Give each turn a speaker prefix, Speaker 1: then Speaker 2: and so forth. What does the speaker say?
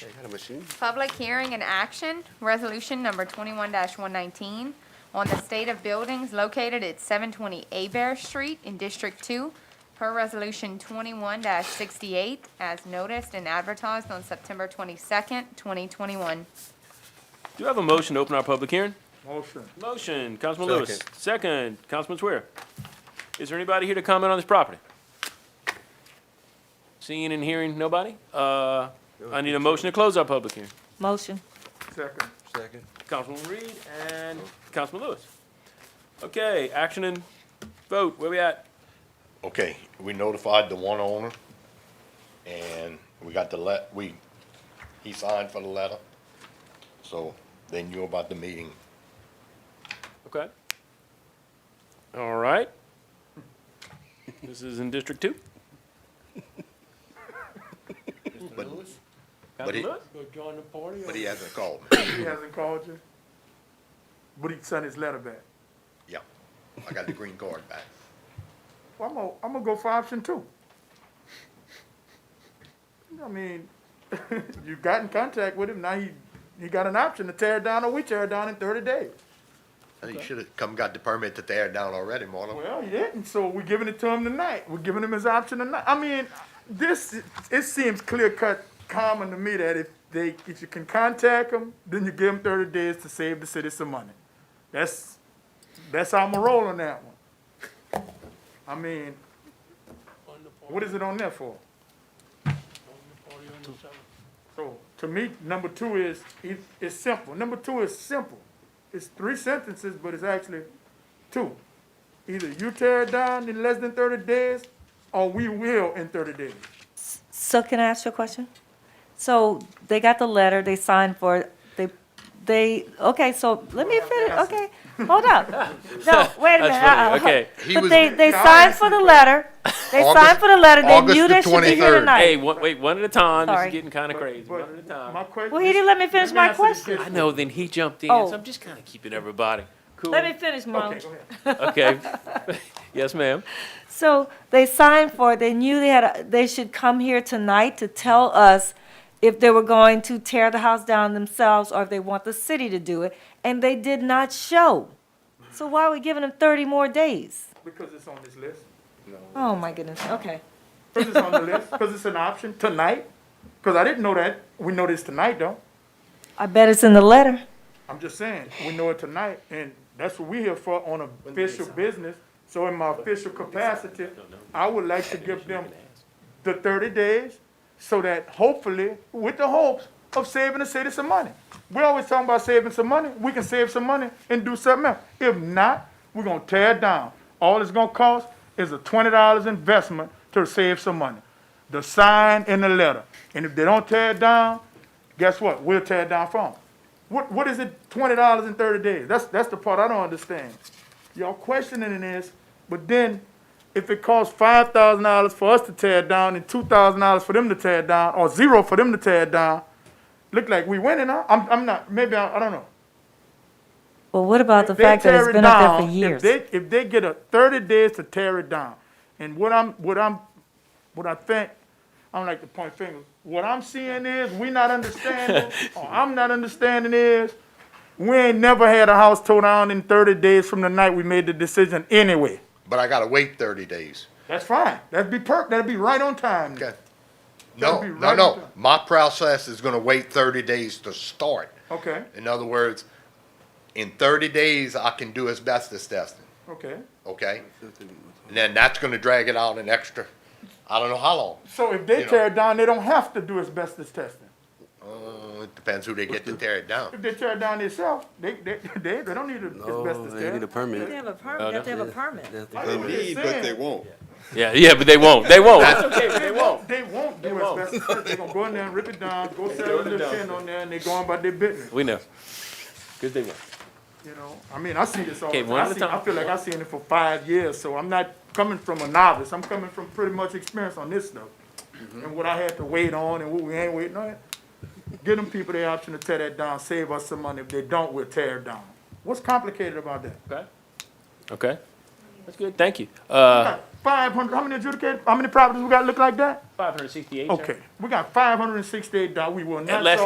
Speaker 1: Okay, got a machine?
Speaker 2: Public hearing and action, resolution number twenty-one one nineteen on the state of buildings located at seven twenty Abear Street in District Two per resolution twenty-one sixty-eight as noticed and advertised on September twenty-second, twenty twenty-one.
Speaker 3: Do you have a motion to open our public hearing?
Speaker 4: Motion.
Speaker 3: Motion, Councilman Lewis. Second, Councilman Swear. Is there anybody here to comment on this property? Seeing and hearing nobody? Uh, I need a motion to close our public hearing.
Speaker 5: Motion.
Speaker 4: Second.
Speaker 1: Second.
Speaker 3: Councilman Reed and Councilman Lewis. Okay, action and vote, where we at?
Speaker 6: Okay, we notified the one owner, and we got the let, we, he signed for the letter, so they knew about the meeting.
Speaker 3: Okay. All right. This is in District Two.
Speaker 6: But, But he-
Speaker 3: Councilman Lewis?
Speaker 4: Go join the party.
Speaker 6: but he hasn't called me.
Speaker 4: He hasn't called you? But he sent his letter back.
Speaker 6: Yeah, I got the green card back.
Speaker 4: Well, I'm gonna, I'm gonna go for option two. I mean, you got in contact with him, now he, he got an option to tear it down or we tear it down in thirty days.
Speaker 6: And he should've come got the permit to tear it down already, Marlon.
Speaker 4: Well, he didn't, so we're giving it to him tonight. We're giving him his option tonight. I mean, this, it seems clear cut common to me that if they, if you can contact them, then you give them thirty days to save the city some money. That's, that's how I'm a roll on that one. I mean, what is it on there for? So, to me, number two is, it, it's simple. Number two is simple. It's three sentences, but it's actually two either you tear it down in less than thirty days, or we will in thirty days.
Speaker 5: So can I ask you a question? So they got the letter, they signed for it, they, they, okay, so let me finish, okay, hold up. No, wait a minute,
Speaker 3: funny,
Speaker 5: uh-uh.
Speaker 3: okay.
Speaker 6: He
Speaker 5: But
Speaker 6: was-
Speaker 5: they, they
Speaker 4: Y'all
Speaker 5: signed for the letter, they signed
Speaker 6: August-
Speaker 5: for the letter, they
Speaker 6: August
Speaker 5: knew
Speaker 6: the
Speaker 5: they should be here
Speaker 6: 23rd.
Speaker 3: Hey,
Speaker 5: tonight.
Speaker 3: one, wait, one at a time, this
Speaker 5: Sorry.
Speaker 3: is getting kinda crazy, one
Speaker 4: But-
Speaker 3: at a
Speaker 4: but
Speaker 3: time.
Speaker 4: my question-
Speaker 5: Well, he didn't let me finish
Speaker 4: me
Speaker 5: my
Speaker 4: ask you this
Speaker 5: question.
Speaker 3: I know, then he jumped in,
Speaker 5: Oh.
Speaker 3: so I'm just kinda keeping everybody cool.
Speaker 5: Let me finish,
Speaker 4: Okay,
Speaker 5: Marlon.
Speaker 4: go ahead.
Speaker 3: Okay. Yes, ma'am.
Speaker 5: So they signed for it, they knew they had, a- they should come here tonight to tell us if they were going to tear the house down themselves or if they want the city to do it, and they did not show. So why are we giving them thirty more days?
Speaker 4: Because it's on this list.
Speaker 5: Oh, my goodness, okay.
Speaker 4: Because it's on the list, because it's an option tonight. Because I didn't know that. We know this tonight, though.
Speaker 5: I bet it's in the letter.
Speaker 4: I'm just saying, we know it tonight, and that's what we here for on official business. So in my official capacity, I would like to give them the thirty days, so that hopefully, with the hopes of saving the city some money. We're always talking about saving some money, we can save some money and do something else. If not, we're gonna tear it down. All it's gonna cost is a twenty dollars investment to save some money. The sign and the letter, and if they don't tear it down, guess what? We'll tear it down for them. What, what is it, twenty dollars in thirty days? That's, that's the part I don't understand. Y'all questioning this, but then if it costs five thousand dollars for us to tear it down and two thousand dollars for them to tear it down, or zero for them to tear it down, look like we winning, huh? I'm, I'm not, maybe, I, I don't know.
Speaker 5: Well, what about the
Speaker 4: If they
Speaker 5: fact that
Speaker 4: tear
Speaker 5: it's
Speaker 4: it
Speaker 5: been up there
Speaker 4: down,
Speaker 5: for years?
Speaker 4: If they, if they get a thirty days to tear it down, and what I'm, what I'm, what I think, I don't like to point fingers. What I'm seeing is, we not understanding, or I'm not understanding is, we ain't never had a house tore down in thirty days from the night we made the decision anyway.
Speaker 6: But I gotta wait thirty days.
Speaker 4: That's fine. That'd be perfect. That'd be right on time.
Speaker 6: Okay.
Speaker 4: That'll
Speaker 6: No,
Speaker 4: be
Speaker 6: no,
Speaker 4: right
Speaker 6: no,
Speaker 4: on time.
Speaker 6: my process is gonna wait thirty days to start.
Speaker 4: Okay,
Speaker 6: In other words, in thirty days, I can do asbestos testing,
Speaker 4: okay.
Speaker 6: okay? And then that's gonna drag it out an extra, I don't know how long.
Speaker 4: So if they
Speaker 6: You know.
Speaker 4: tear it down, they don't have to do asbestos testing.
Speaker 6: Uh, it depends who they get to tear it down.
Speaker 4: If they tear it down themselves, they, they, they, they don't need to
Speaker 1: No,
Speaker 4: asbestos
Speaker 1: they
Speaker 4: test.
Speaker 1: need a permit.
Speaker 5: have a permit, they have to have a permit.
Speaker 4: That's what they're saying.
Speaker 7: won't.
Speaker 3: Yeah, yeah, but they won't, they won't. That's okay,
Speaker 4: They won't, they won't do
Speaker 3: won't.
Speaker 4: asbestos test. They gonna go in there and rip it down, go sell
Speaker 3: it
Speaker 4: the
Speaker 3: down.
Speaker 4: tin on there, and they going about their business,
Speaker 3: We know. Cause they won't.
Speaker 4: you know? I mean, I see this all
Speaker 3: Okay,
Speaker 4: the time.
Speaker 3: one
Speaker 4: I
Speaker 3: at a
Speaker 4: see- I
Speaker 3: time.
Speaker 4: feel like I seen it for five years, so I'm not coming from a novice. I'm coming from pretty much experience on this stuff. And what I had to wait on and what we ain't waiting on. Give them people the option to tear that down, save us some money. If they don't, we'll tear it down. What's complicated about that?
Speaker 3: Okay. Okay. That's good, thank you. Uh,
Speaker 4: Five hundred, how many adjudicated, how many properties we got look like that?
Speaker 3: five hundred sixty-eight,
Speaker 4: Okay, we got five hundred and sixty-eight dollars, we will not.
Speaker 3: Unless